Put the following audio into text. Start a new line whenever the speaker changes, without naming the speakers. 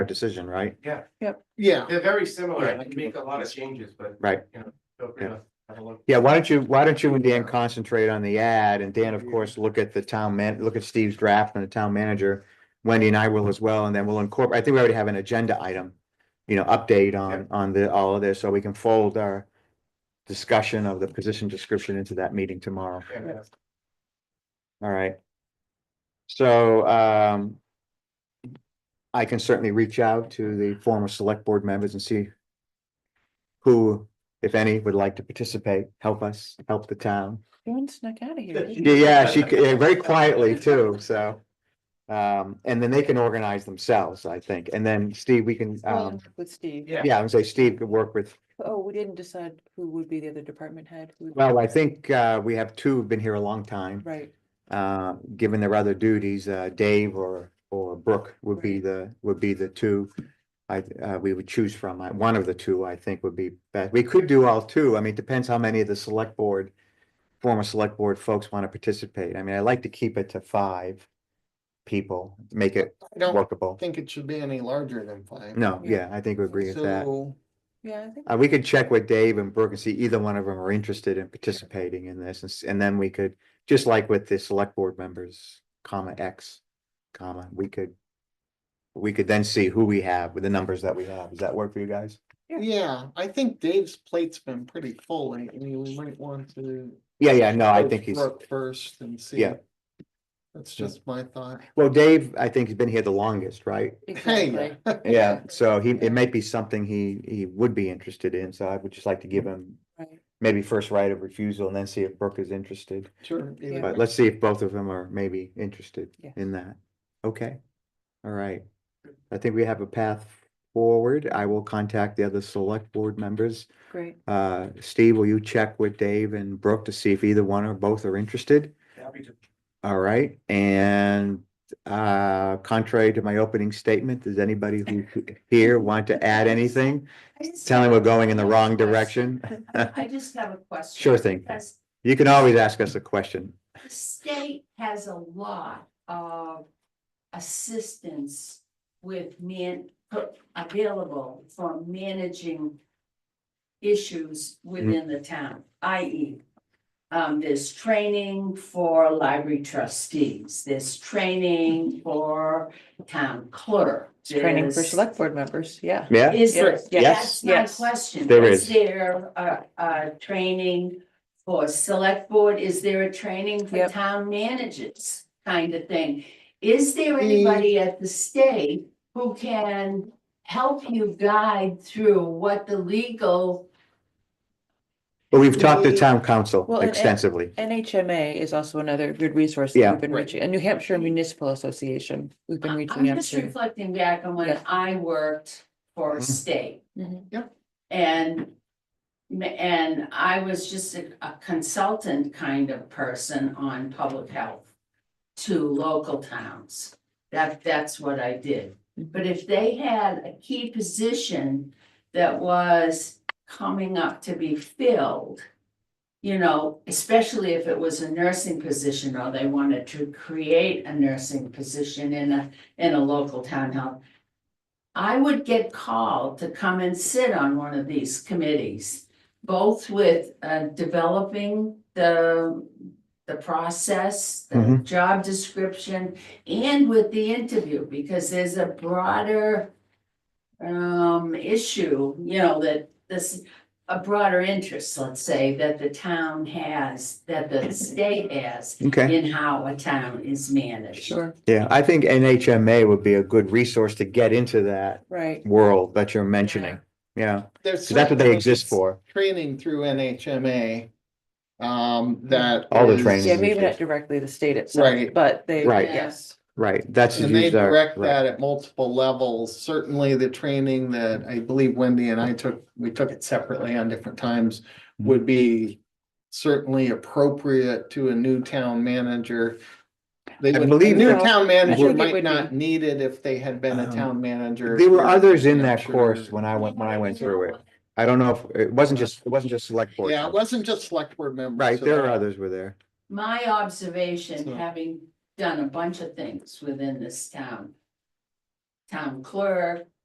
decision, right?
Yeah,
They're very similar,
Yeah.
they make a lot of changes, but.
Right.
You know, feel free
Yeah.
to have a look.
Yeah, why don't you, why don't you and Dan concentrate on the ad and Dan, of course, look at the town man, look at Steve's draft and the town manager. Wendy and I will as well, and then we'll incorporate, I think we already have an agenda item, you know, update on, on the, all of this, so we can fold our discussion of the position description into that meeting tomorrow.
Yeah.
All right. So, um, I can certainly reach out to the former select board members and see who, if any, would like to participate, help us, help the town.
Dawn snuck out of here. didn't
Yeah,
you?
yeah, she, c- yeah, very quietly too, so. Um, and then they can organize themselves, I think. And then Steve, we can,
Well,
um,
With Steve.
Yeah.
yeah, I would say Steve could work with,
Oh, we didn't decide who would be the other department head. who would-
well, I think, uh, we have two who've been here a long time.
Right,
Uh, given their other duties, uh, Dave or, or Brooke would be
Right.
the, would be the two. I, uh, we would choose from. I- One of the two, I think, would be best. We could do all two. I mean, it depends how many of the select board, former select board folks want to participate. I mean, I like to keep it to five people, to make it
I don't
workable.
think it should be any larger than five.
No, yeah,
Yeah.
I think we agree with that.
So,
yeah, I think,
Uh, we could check with Dave and Brooke and see either one of them are interested in participating in this, and, s- and then we could, just like with the select board members, comma X, comma, we could. We could then see who we have with the numbers that we have. Does that work for you guys?
yeah, I think Dave's plate's been pretty full lately. We might want to.
Yeah, yeah, no, Uh, I
go
think he's,
Brooke First and see.
Yeah.
That's just my thought.
well, Dave, I think he's been here the longest, right?
exactly.
Yeah, so he, it might be something he, he would be interested in, so I would just like to give him.
Right.
Maybe first right of refusal and then see if Brooke is interested.
Sure. either
Yeah.
But let's see if both of them are maybe interested
Yes.
in that. Okay, all right. I think we have a path forward. I will contact the other select board members.
Great,
Uh, Steve, will you check with Dave and Brooke to see if either one or both are interested?
Happy to.
All right, and uh, contrary to my opening statement, does anybody who here want to add anything?
I just
Tell me
have-
we're going in the wrong direction.
I just have a question.
Sure thing.
Because
You can always ask us a question.
the state has a lot of assistance with man, available for managing issues within the town, i.e. Um, there's training for library trustees, there's training for town clerk.
training for
there's-
select board members, yeah.
Yeah,
Is there,
Yes,
that's my
yes.
question.
There is.
there a, a training for select board? Is there a training for
Yep.
town managers kind of thing? Is there anybody at the state who can help you guide through what the legal?
but we've talked to town council
Well, and- and-
extensively.
NHMA is we've another good resource
Yeah.
that we've been
Right.
reaching, and New Hampshire Municipal Association, we've been
I'm
reaching out
just
to.
reflecting back on when
Yeah.
I worked for
Mhm.
state.
Mhm.
And, and I was just a a consultant kind of person on public health to local towns. That, that's what I did. But if they had a key position that was coming up to be filled, you know, especially if it was a nursing position or they wanted to create a nursing position in a, in a local town health, I would get called to come and sit on one of these committees, both with uh, developing the, the process, the
Mhm.
job description, and with the interview, because there's a broader um, issue, you know, that this, a broader interest, let's say, that the town has, that the state has
Okay.
in how a town is managed.
Sure,
Yeah, I think NHMA would be a good resource to get into that
right,
world that you're mentioning. Yeah,
There's
'cause that's what they
certainly
exist for.
Training through NHMA. Um, that.
All the
is-
training.
yeah, maybe
resource.
not directly the state itself,
Right.
but they,
Right.
yes,
Right, that's.
And they
these are-
direct
right.
that at multiple levels. Certainly the training that I believe Wendy and I took, we took it separately on different times would be certainly appropriate to a new town manager. They
I
would, a
believe
new
that-
town
I
manager
think it
might
would
not need it if they had been a
Um,
town manager.
There were
for-
others in that
Sure.
course when I went, when I went through it. I don't know if, it wasn't just, it wasn't just select board.
Yeah, it wasn't just select board members.
Right,
so
there
that-
are others were there.
My observation,
So-
having done a bunch of things within this town. town clerk,